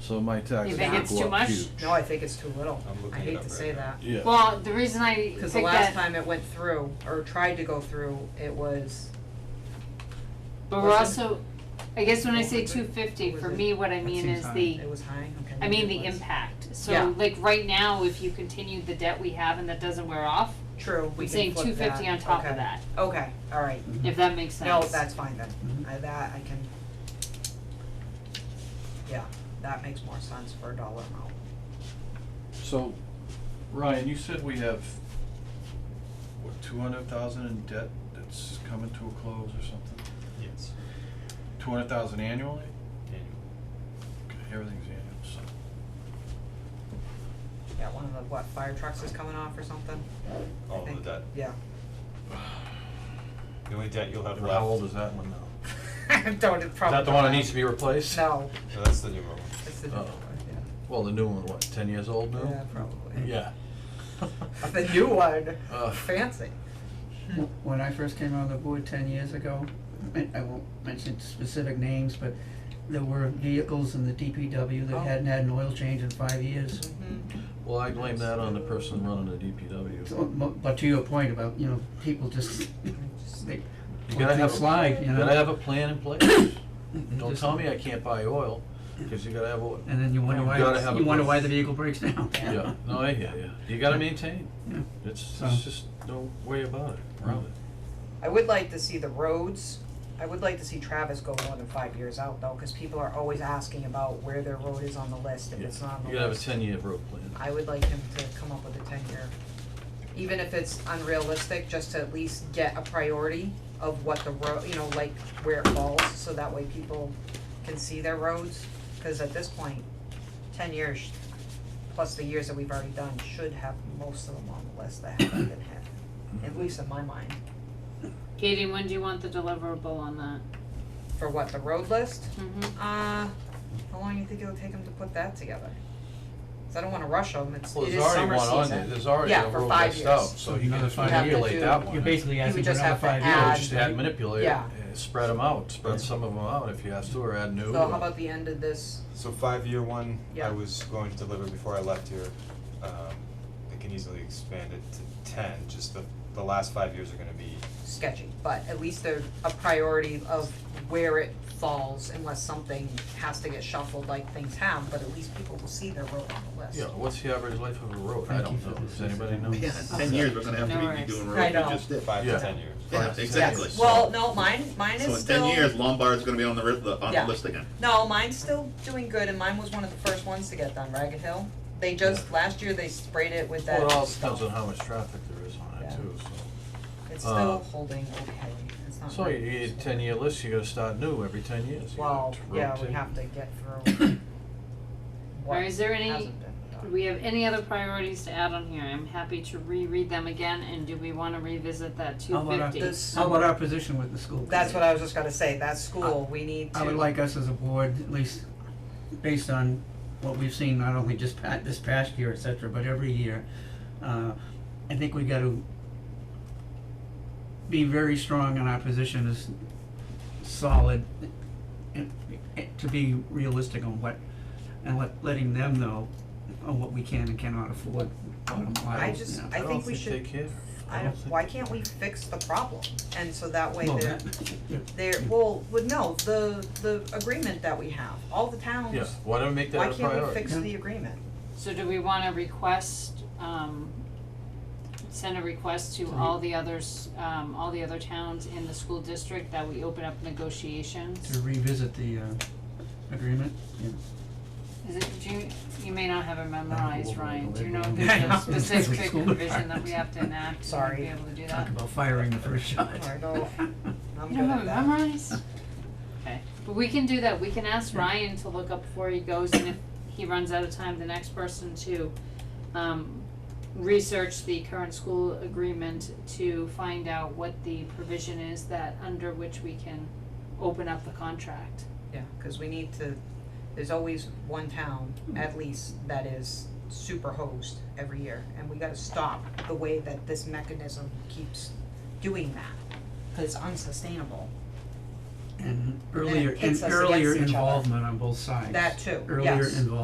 so my taxes You will think go up it's too much? huge. Sure. No, I think it's too little. I'm looking I it hate up to right say now. that. Yeah. Well, the reason I picked Cause the that, last time it went through, or tried to go through, it was, but we're wasn't- also, I guess when I What say was two it? fifty, Was for it- me, what I that mean seems is high. the, it was high, okay. I mean maybe it the was. impact. Yeah. So like right now, if you continue the debt we have and that doesn't wear off, True, we I'm can saying flip two fifty that. on top Okay. of that, Okay, alright. if that makes sense. Mm-hmm. No, that's fine then. Mhm. I, that, I can. Yeah, that makes more sense for a dollar amount. So, Ryan, you said we have, what, two hundred thousand in debt that's coming to a close or something? Yes, Two hundred thousand annually? annual. Okay, Everything's annual, so, Yeah, one of the, what, fire trucks is coming off or something? I All think. of that, Yeah. the only debt you'll have left. how old is that one now? Don't, it Is probably. that the one that needs to be replaced? No, No, that's the newer one. it's the, Oh. yeah, Well, the new one, what, ten years old now? yeah, probably. Yeah. The new one, Ugh. fancy. When I first came on the board ten years ago, I I won't mention specific names, but there were vehicles in the DPW Oh. Mm-hmm. that hadn't had an oil change in five years. Hmm. Well, I blame that on the person running the DPW. So, mo- but to your point about, you know, people just, they, You let gotta have, things a- slide, you you know? gotta have a plan in place. Don't Just- tell me I can't buy oil, cause you gotta have oil. And then you wonder You why, gotta have a you wonder plan. why the vehicle breaks down. Yeah, no, I hear ya. You gotta maintain. Yeah. It's, So- it's just, no way about it, around it. I would like to see the roads, I would like to see Travis go more than five years out though, cause people are always asking about where their road is on the list, if it's not on the list. You gotta have a ten-year road plan. I would like him to come up with a ten year, even if it's unrealistic, just to at least get a priority of what the road, you know, like where it falls, so that way people can see their roads. Cause at this point, ten years plus the years that we've already done should have most of them on the list that haven't been hit, at least in my mind. Katie, when do you want the deliverable on that? For what, the road list? Mm-hmm. Uh, how long you think it'll take him to put that together? Cause I don't wanna rush him, it's, Well, it there's is already summer one season. on there, there's already Yeah, a for road five list years. out, so you can Another just five years. manipulate that one. You're basically You would asking for just another have to five You know, add- years. just add, manipulate, Yeah. uh, spread them out, spread some of them out if you have to, or add new. So how or- about the end of this, So five-year one, Yeah. I was going to deliver before I left here, um, I can easily expand it to ten, just the, the last five years are gonna be, sketchy, but at least they're a priority of where it falls unless something has to get shuffled like things have, but at least people will see their road on the list. Yeah, what's the average life of a road? I Thank you don't for know. this. Does anybody know? Yeah, in ten years, we're gonna have No to be- worries. be doing I roads know. we just did. five Yeah. to ten years. Five Yeah, to exactly. ten. Well, no, mine, mine So is in ten still, years, Lombard's gonna be on the, ri- the, on Yeah. the list again. no, mine's still doing good and mine was one of the first ones to get done, Ragged Hill. They just, last year they sprayed it with that Well, it all stuff. depends on how much traffic there is on it Yeah. too, It's uh, still holding okay, it's so. not. So you, you really- ten-year list, you gotta start new every ten years. You Well, gotta yeah, we rotate. have to get through what Or is there any- hasn't been done. Do we have any other priorities to add on here? I'm happy to reread them again, and do we wanna revisit that two How about fifty? This- How about our position with the school? That's committee? what I was just gonna say, that school, we need to. I would like us as a board, at least based on what we've seen, not only just pa- this past year, et cetera, but every year, uh, I think we gotta be very strong in our position as solid and, and to be realistic on what, and let, letting them know on what we can and cannot afford, bottom line, I you just- know. I think we should- don't think they care. don't I don't, think why they- can't we fix the problem? And so that way Well, they're, that- they're, well, well, no, the, the agreement that we have, all the towns, Yeah, why don't we make why that a can't we priority? fix Yeah. the agreement? So do we wanna request, um, send a request to all the others, um, all the other towns in the school district that we open up negotiations? To revisit the, uh, agreement, yeah. Is it, do you, you may not have it memorized, Ryan, do you know if Yeah. there's Yeah. a specific School provision that we have to enact to Sorry. be able to do that? Talk about firing the first shot. Or go, I'm You good don't at have it that. memorized? Okay, but we can do that, we can ask Ryan to look up before he goes, and if he runs out of time, the next person to, um, research the current school agreement to find out what the provision is that, under which we can open up the contract. Yeah, cause we need to, there's always one town, at least, that is super hosed every year, and we gotta stop the way that this mechanism keeps doing that, cause it's unsustainable, And earlier, hits us and earlier against each other. involvement on both sides. that too, yes. Earlier involvement.